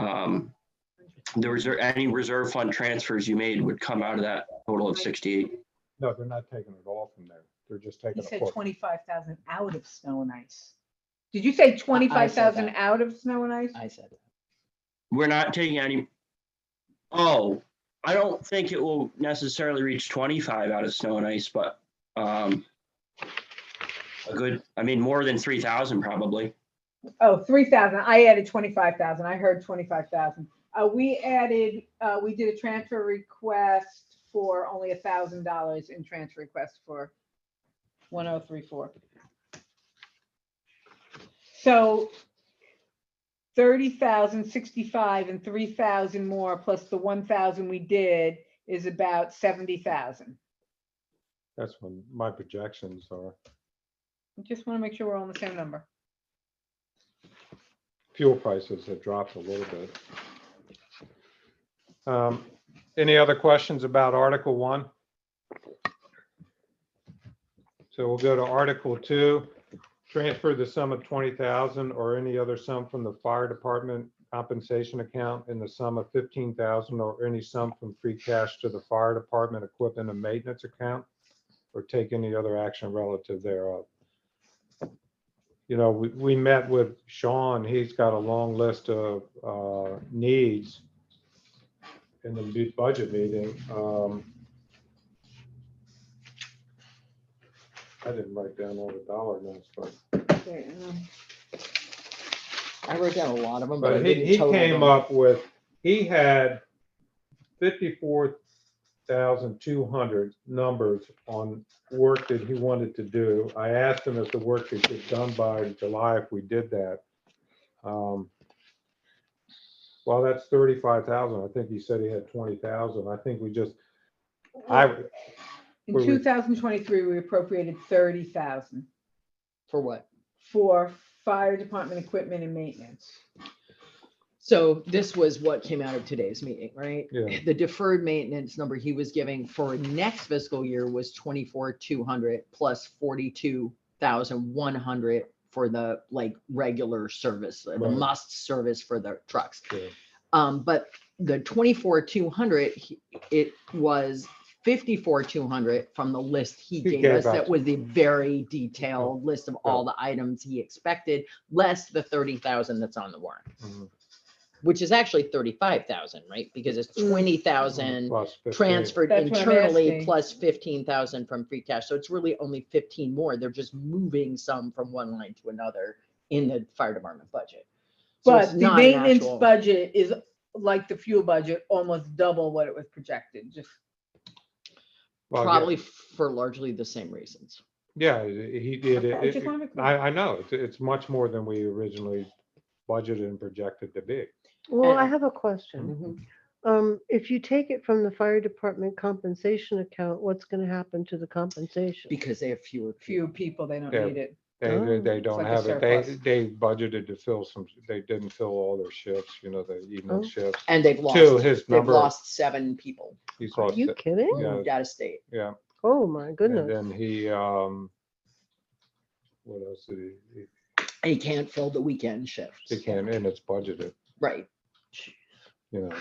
um, the reserve, any reserve fund transfers you made would come out of that total of sixty-eight. No, they're not taking it all from there. They're just He taking a said portion. twenty-five thousand out of snow and ice. Did you say twenty-five thousand that. out of snow and ice? I said, it. We're not taking any. Oh, I don't think it will necessarily reach twenty-five out of snow and ice, but, um, a good, I mean, more than three thousand probably. Oh, three thousand. I added twenty-five thousand. I heard twenty-five thousand. Uh, we added, uh, we did a transfer request for only a thousand dollars in transfer request for one oh three four. So thirty thousand sixty-five and three thousand more plus the one thousand we did is about seventy thousand. That's when my projections are. Just want to make sure we're all on the same number. Fuel prices have dropped a little bit. Um, Any other questions about Article One? So we'll go to Article Two, transfer the sum of twenty thousand or any other sum from the fire department compensation account in the sum of fifteen thousand or any sum from free cash to the fire department equipment and maintenance account or take any other action relative thereof. You know, we, we met with Sean. He's got a long list of, uh, needs in the bu- budget meeting. Um, I didn't write down all the dollar amounts, but I wrote down a lot of them, but I But he, didn't he total came them. up with, he had fifty-four thousand two hundred numbers on work that he wanted to do. I asked him if the work could get done by July if we did that. Um, Well, that's thirty-five thousand. I think he said he had twenty thousand. I think we just, I, In Where we- two thousand twenty-three, we appropriated thirty thousand For what? for fire department equipment and maintenance. So this was what came out of today's meeting, right? yeah, The deferred maintenance number he was giving for next fiscal year was twenty-four, two hundred plus forty-two thousand, one hundred for the like regular service, the Right. must service for the trucks. yeah. Um, but the twenty-four, two hundred, it was fifty-four, two hundred from the list he gave gave us. That us. Mm-hmm. was the very detailed list of all the items he expected, less the thirty thousand that's on the warrant, Mhm. which is actually thirty-five thousand, right? Because it's Mm. twenty thousand Plus 15. transferred That's what I'm internally asking. plus fifteen thousand from free cash. So it's really only fifteen more. They're just moving some from one line to another in the fire department budget. So it's But the not an maintenance actual- budget is like the fuel budget, almost double what it was projected, just. Well, yeah. Probably for largely the same reasons. Yeah, he did. Okay, I It, just it- wanna be clear. I, I know, it's, it's much more than we originally budgeted and projected to be. Well, I And- have a question. Mm-hmm. Um, if you take it from the fire department compensation account, what's gonna happen to the compensation? Because they have fewer Few people, they don't Yeah. need it. They, they- Oh. they don't like a have it. They, surplus. they budgeted to fill some, they didn't fill all their shifts, you know, the Oh. evening shifts. And they've Two, lost, his they've number, lost seven people he's Are lost, you it, kidding? Yeah. moved out of state. yeah. Oh, my And goodness. then he, um, what else did he, he- They can't fill the weekend shifts. he came in, it's budgeted, Right. you know.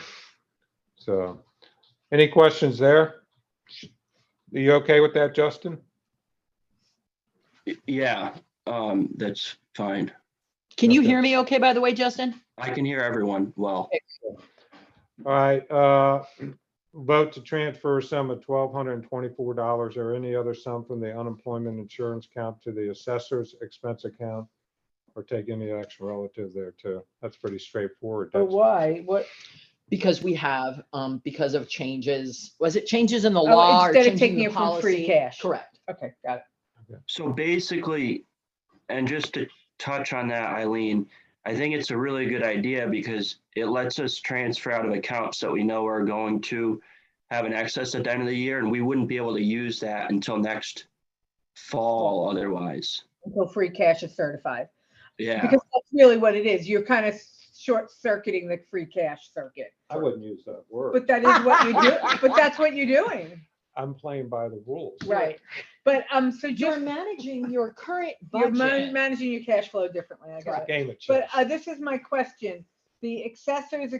So, any questions there? Are you okay with that, Justin? Y- Yeah, um, that's fine. Can you Okay. hear me okay, by the way, Justin? I can hear everyone well. All right, uh, vote to transfer a sum of twelve hundred and twenty-four dollars or any other sum from the unemployment insurance account to the assessor's expense account or take any action relative there too. That's pretty straightforward. But That's- why? What? Because we have, um, because of changes, was it changes in the Oh, law or instead of changing taking it the from free policy? cash. Correct. Okay, got it. So basically, and just to touch on that, Eileen, I think it's a really good idea because it lets us transfer out of accounts that we know are going to have an excess at the end of the year, and we wouldn't be able to use that until next fall otherwise. Until free cash is certified. Yeah, Because that's really what it is. You're kind of short circuiting the free cash circuit. I wouldn't use that word. But that is what you do, but that's what you're doing. I'm playing by the rules. Right. But, um, so You're just, managing your current you're man- budget. managing your cash flow differently. I It's got a it. game of But chess. uh, this is my question. The accessories